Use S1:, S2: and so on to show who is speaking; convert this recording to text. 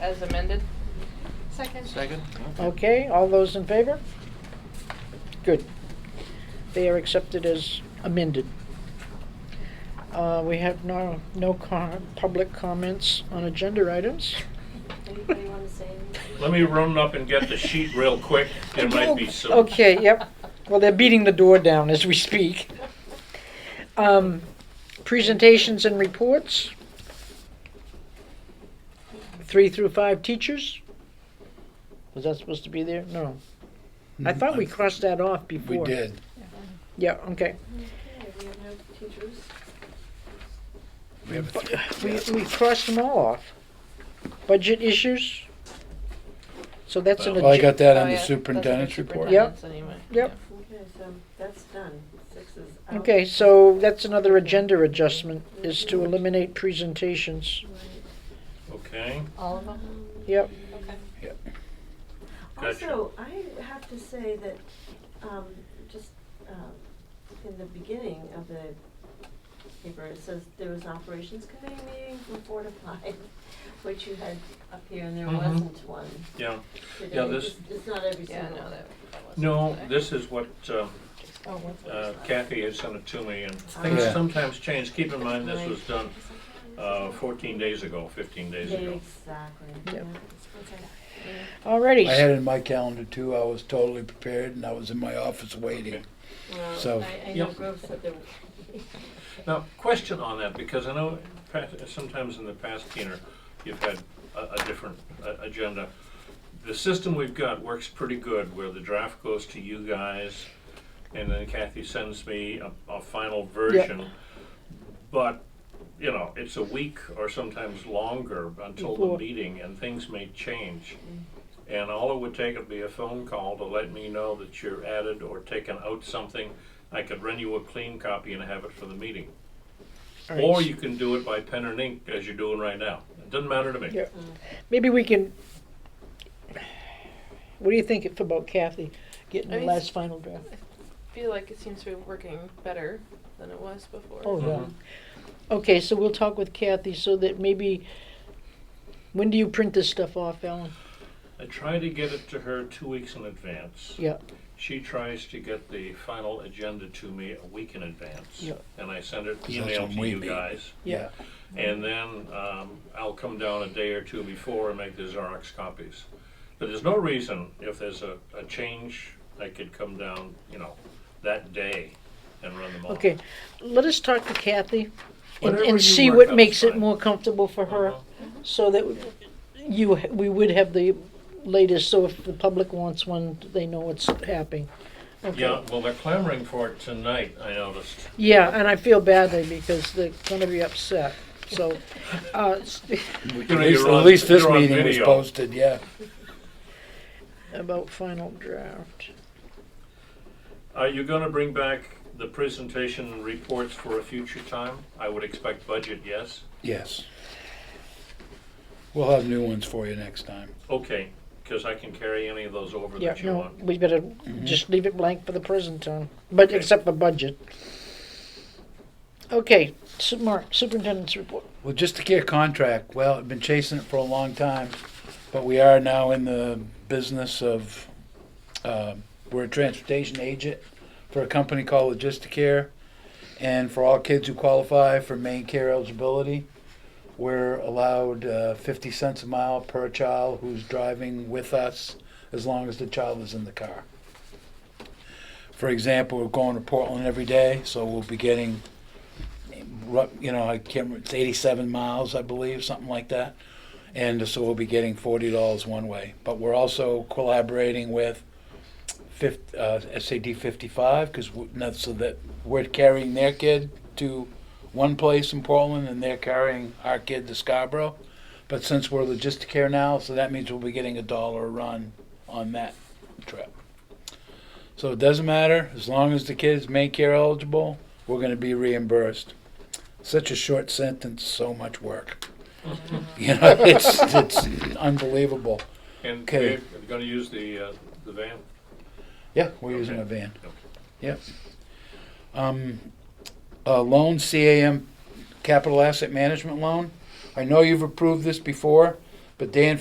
S1: as amended?
S2: Second.
S3: Second?
S4: Okay, all those in favor? Good. They are accepted as amended. Uh, We have no, no com- public comments on agenda items.
S2: Anybody want to say anything?
S5: Let me run up and get the sheet real quick. There might be some.
S4: Okay, yep. Well, they're beating the door down as we speak. Um, Presentations and reports. Three through five teachers. Was that supposed to be there? No. I thought we crossed that off
S3: Mm-hmm. We
S4: before.
S3: did.
S4: Yeah, okay.
S2: Okay, we have no teachers.
S3: We have a
S4: We, we crossed them all off. Budget issues. So that's an.
S3: Well, I
S4: agen-
S3: got that
S1: Oh, yeah,
S3: on the
S1: that's the
S3: superintendent's report.
S4: Yep.
S1: superintendent's anyway.
S4: Yep.
S2: Okay, so um, that's done. Six is out.
S4: Okay, so that's another agenda adjustment, is to eliminate presentations.
S5: Okay.
S1: All of them?
S2: Um,
S4: Yep,
S1: Okay.
S3: Yep.
S5: Gotcha.
S2: Also, I have to say that, um, just, um, in the beginning of the paper, it says there was an operations committee meeting from four to five, which you had up here and there
S5: Mhm.
S2: wasn't one
S5: Yeah.
S2: today.
S5: Yeah, this-
S2: It's- It's not every
S1: Yeah,
S2: single.
S1: no, that, that wasn't.
S5: No,
S1: today.
S5: this is what uh,
S1: Oh, what's the
S5: uh,
S1: next one?
S5: Kathy had sent it to me, and things
S3: Yeah.
S5: sometimes change. Keep in mind, this was done uh, 14 days ago, 15 days ago.
S2: Exactly.
S4: Yep.
S2: yeah.
S4: alrighty.
S3: I had it in my calendar too. I was totally prepared and I was in my office waiting.
S2: Well,
S3: So-
S2: I, I know
S5: Yep.
S2: Grove said there,
S5: Now, question on that, because I know pa- sometimes in the past, Keener, you've had a, a different uh, agenda. The system we've got works pretty good, where the draft goes to you guys, and then Kathy sends me a, a final version. But, you know, it's a week or sometimes longer until the
S4: Before.
S5: meeting, and things may change. And all it would take would be a phone call to let me know that you're added or taken out something. I could run you a clean copy and have it for the meeting.
S4: Alright.
S5: Or you can do it by pen and ink as you're doing right now. It doesn't matter to me.
S4: Yeah. Maybe we can, what do you think about Kathy getting
S1: I
S4: the
S1: mean,
S4: last final draft?
S1: Feel like it seems to be working better than it was before.
S4: Oh, yeah.
S5: Mhm.
S4: Okay, so we'll talk with Kathy so that maybe, when do you print this stuff off, Ellen?
S5: I try to get it to her two weeks in advance.
S4: Yeah,
S5: She tries to get the final agenda to me a week in advance.
S4: Yeah.
S5: And I send it
S3: that's
S5: email
S3: when
S5: to
S3: we
S5: you
S3: meet.
S5: guys.
S4: yeah.
S5: And then um, I'll come down a day or two before and make the Xerox copies. But there's no reason, if there's a, a change, I could come down, you know, that day and run them all.
S4: Okay, let us talk to Kathy and,
S5: Whatever you
S4: and see
S5: work
S4: what
S5: out's
S4: makes it
S5: fine.
S4: more comfortable for her,
S5: Uh-huh.
S4: so that you, we would have the latest, so if the public wants one, they know what's happening. Okay.
S5: Yeah, well, they're clamoring for it tonight, I noticed.
S4: Yeah, and I feel badly because they're gonna be upset, so, uh, s-
S3: We- At
S5: You're
S3: least,
S5: on-
S3: at least this
S5: you're on
S3: meeting was
S5: video.
S3: posted, yeah.
S4: about final draft.
S5: Are you gonna bring back the presentation and reports for a future time? I would expect budget, yes?
S3: Yes. We'll have new ones for you next time.
S5: Okay, because I can carry any of those over
S4: Yeah,
S5: that you
S4: no,
S5: want.
S4: we better just leave it blank for the present time, but
S5: Okay.
S4: except for budget. Okay, Su- Mark, superintendent's report.
S3: Well, just to get a contract, well, I've been chasing it for a long time, but we are now in the business of, um, we're a transportation agent for a company called Logisticare. And for all kids who qualify for main care eligibility, we're allowed uh, 50 cents a mile per child who's driving with us as long as the child is in the car. For example, we're going to Portland every day, so we'll be getting ru- you know, I can't remember, it's 87 miles, I believe, something like that. And so we'll be getting $40 one way. But we're also collaborating with 50, uh, SAD 55 because so that we're carrying their kid to one place in Portland and they're carrying our kid to Scarborough. But since we're Logisticare now, so that means we'll be getting a dollar a run on that trip. So it doesn't matter as long as the kid is Medicare eligible, we're going to be reimbursed such a short sentence, so much work. you know, it's it's unbelievable.
S5: And
S3: okay.
S5: they're gonna use the, uh, the van?
S3: Yeah, we're using
S5: Okay.
S3: a van.
S5: Okay.
S3: Yep. Um, a loan, CAM, Capital Asset Management Loan. I know you've approved this before, but Dan